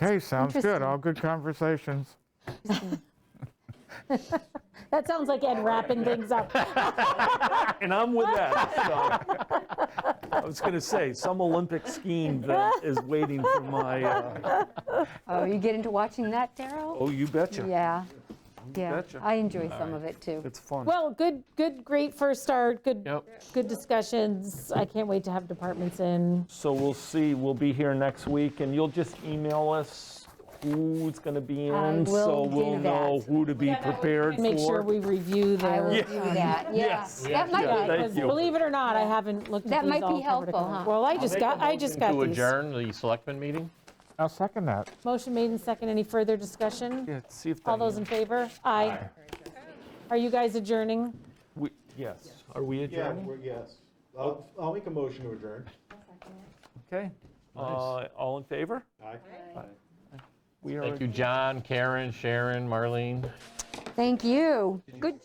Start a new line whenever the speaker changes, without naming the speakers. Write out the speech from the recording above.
Okay, sounds good.
Interesting.
All good conversations.
That sounds like Ed wrapping things up.
And I'm with that, so. I was gonna say, some Olympic scheme that is waiting for my, uh,
Oh, you get into watching that, Daryl?
oh, you betcha.
Yeah, yeah.
betcha.
I enjoy some of it, too.
It's fun.
Well, good, good, great first start, good,
Yep.
good discussions. I can't wait to have departments in.
So we'll see, we'll be here next week, and you'll just email us who's gonna be
I
in, so
will
we'll
do
know
that.
who to be prepared for.
Make sure we review
I will
their.
do that, yeah.
Yes.
That
Yeah,
might
thank
be,
Because
you.
Believe it or not, I haven't looked at
That
these
might be
all cover to
helpful,
cover.
huh?
Well, I just got, I just got
To
these.
adjourn the selectmen meeting?
I'll second that.
Motion made and second. Any further discussion?
Yeah, see if
All those in
that,
favor? Aye. Are you guys adjourning?
we- yes, are we
Yeah,
adjourned?
we're, yes. I'll, I'll make a motion to adjourn.
Okay, Uh, all in favor?
Aye.
We are
Thank you, John, Karen, Sharon, Marlene.
thank you. Good.